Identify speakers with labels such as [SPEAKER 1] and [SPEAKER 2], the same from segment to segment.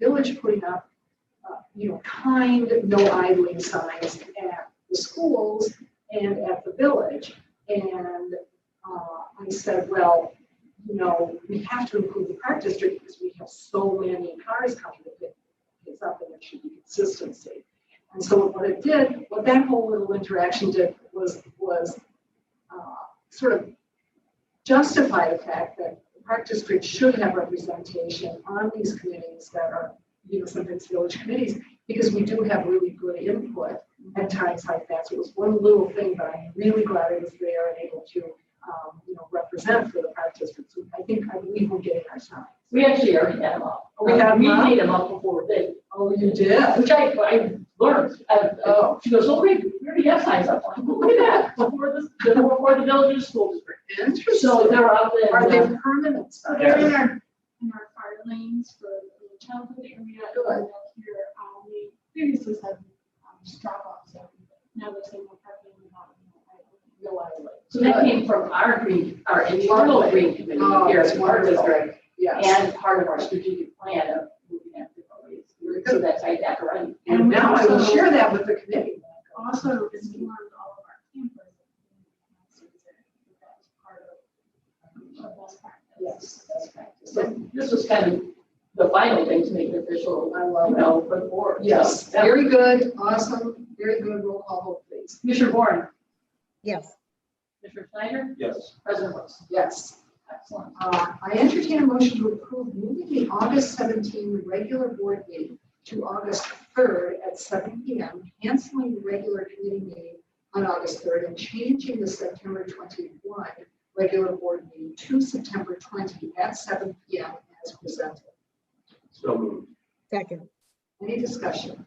[SPEAKER 1] encourage putting up, uh, you know, kind no idling signs at the schools and at the village. And uh, I said, well, you know, we have to improve the park district because we have so many cars coming to pick kids up and there should be consistency. And so what it did, what that whole little interaction did was, was uh, sort of justify the fact that the park district should have representation on these committees that are, you know, sometimes village committees, because we do have really good input at times like that. So it was one little thing, but I'm really glad I was there and able to, um, you know, represent for the park district. So I think, I believe we're getting our sign.
[SPEAKER 2] We actually already had them up.
[SPEAKER 1] Oh, We had them
[SPEAKER 2] We
[SPEAKER 1] up?
[SPEAKER 2] made them up before they,
[SPEAKER 1] Oh, you did?
[SPEAKER 2] which I, I learned. Uh, uh, She goes, oh, wait, we already have signs up. I'm like, Look at that, before this, before the village's school district. So
[SPEAKER 1] Interesting.
[SPEAKER 2] they're up
[SPEAKER 1] Are
[SPEAKER 2] there. uh,
[SPEAKER 1] they permanent signs?
[SPEAKER 3] Uh, They're in our, in our fire lanes for the childhood area.
[SPEAKER 1] Good.
[SPEAKER 3] and up Here, um, we previously said, um, just drop off, so now they're saying we're parking in the bottom.
[SPEAKER 2] So that came from our green, our internal green committee
[SPEAKER 1] Oh,
[SPEAKER 2] here
[SPEAKER 1] it's
[SPEAKER 2] at Park District.
[SPEAKER 1] wonderful. Yes.
[SPEAKER 2] And part of our strategic plan of moving at different rates. So that's right back around.
[SPEAKER 1] And now I will share that with the committee.
[SPEAKER 3] Also, it's beyond all of our campers. That's part of, of best practice.
[SPEAKER 1] Yes, that's right. So
[SPEAKER 2] So this was kind of the final thing to make it official,
[SPEAKER 1] I
[SPEAKER 2] you
[SPEAKER 1] love it.
[SPEAKER 2] know, for the board. So
[SPEAKER 1] Yes,
[SPEAKER 2] that-
[SPEAKER 1] very good, awesome, very good, roll call vote, please.
[SPEAKER 2] Commissioner Warren,
[SPEAKER 4] Yes.
[SPEAKER 2] Commissioner Schneider,
[SPEAKER 5] Yes.
[SPEAKER 2] President Brooks.
[SPEAKER 1] Yes.
[SPEAKER 2] Excellent.
[SPEAKER 1] Uh, I entertain a motion to approve moving the August 17 regular board meeting to August 3rd at 7 PM, canceling the regular committee meeting on August 3rd and changing the September 21 regular board meeting to September 20 at 7 PM as presented.
[SPEAKER 5] So moved.
[SPEAKER 4] Second.
[SPEAKER 1] Any discussion?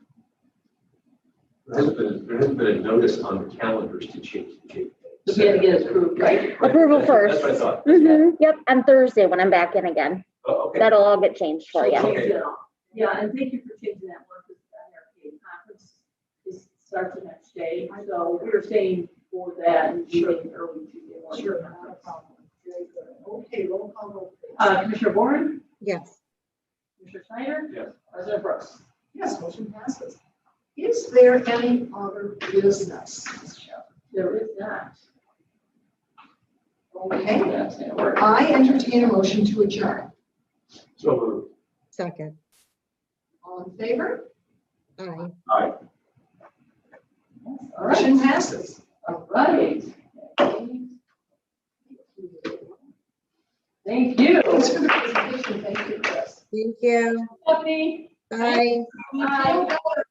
[SPEAKER 5] There hasn't been, there hasn't been a notice on the calendars to change the date.
[SPEAKER 2] So we had to get it approved, right?
[SPEAKER 5] Right,
[SPEAKER 6] Approval
[SPEAKER 5] that's what-
[SPEAKER 6] first.
[SPEAKER 5] That's what I thought.
[SPEAKER 6] Mm-hmm, yep, on Thursday when I'm back in again.
[SPEAKER 5] Oh, okay.
[SPEAKER 6] That'll all get changed for
[SPEAKER 2] She'll
[SPEAKER 6] you.
[SPEAKER 2] change it all. Yeah, and thank you for changing that one, because the NRPA conference is, starts the next day. So we were saying for that, and sure, early Tuesday morning.
[SPEAKER 1] Not a problem. Very good. Okay, roll call vote. please.
[SPEAKER 2] Uh, Commissioner Warren,
[SPEAKER 4] Yes.
[SPEAKER 2] Commissioner Schneider,
[SPEAKER 5] Yes.
[SPEAKER 2] President Brooks.
[SPEAKER 1] Yes, motion passes. Is there any other business?
[SPEAKER 2] There is not.
[SPEAKER 1] Okay,
[SPEAKER 2] That's gonna work.
[SPEAKER 1] I entertain a motion to adjourn.
[SPEAKER 5] So moved.
[SPEAKER 4] Second.
[SPEAKER 1] All in favor?
[SPEAKER 4] Aye.
[SPEAKER 2] All right,
[SPEAKER 1] Motion passes.
[SPEAKER 2] all right. Thank you.
[SPEAKER 1] Thanks for the presentation. Thank you, Chris.
[SPEAKER 4] Thank you.
[SPEAKER 2] Stephanie.
[SPEAKER 4] Bye.
[SPEAKER 1] Bye.